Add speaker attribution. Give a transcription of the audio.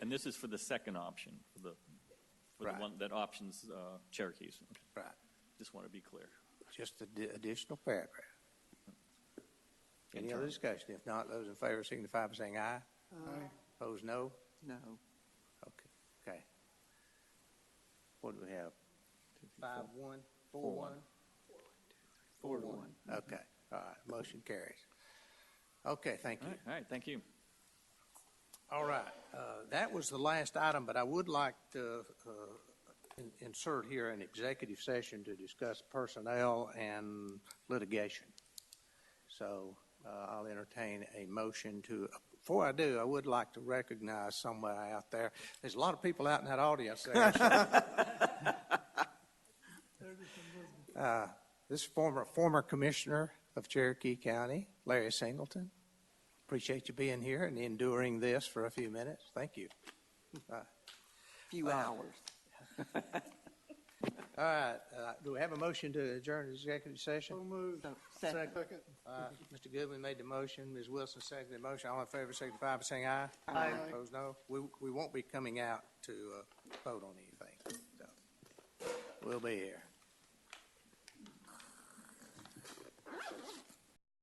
Speaker 1: And this is for the second option, for the, for the
Speaker 2: Right.
Speaker 1: one that options uh, Cherokees. Okay,
Speaker 2: Right,
Speaker 1: Just want to be clear.
Speaker 2: just the d- additional paragraph. Any other
Speaker 1: Internal.
Speaker 2: discussion? If not, those in favor signify by saying aye. Aye. Opposed, no?
Speaker 3: No.
Speaker 2: Okay, okay. What do we have? Five, one, four, one?
Speaker 3: Four to one.
Speaker 2: Okay, all right, motion carries. Okay, thank
Speaker 1: All
Speaker 2: you.
Speaker 1: right, all right, thank you.
Speaker 2: All right, uh, that was the last item, but I would like to uh, in- insert here an executive session to discuss personnel and litigation. So uh, I'll entertain a motion to, before I do, I would like to recognize someone out there. There's a lot of people out in that audience there. so- Uh, This former, former commissioner of Cherokee County, Larry Singleton. Appreciate you being here and enduring this for a few minutes. Thank you.
Speaker 3: Few hours.
Speaker 2: All right, uh, do we have a motion to adjourn the executive session?
Speaker 3: So, second.
Speaker 2: Uh, Mr. Goodwin made the motion, Ms. Wilson seconded the motion. All in favor, signify by saying aye.
Speaker 3: Aye.
Speaker 2: Opposed, no. We, we won't be coming out to uh, vote on anything. so. We'll be here.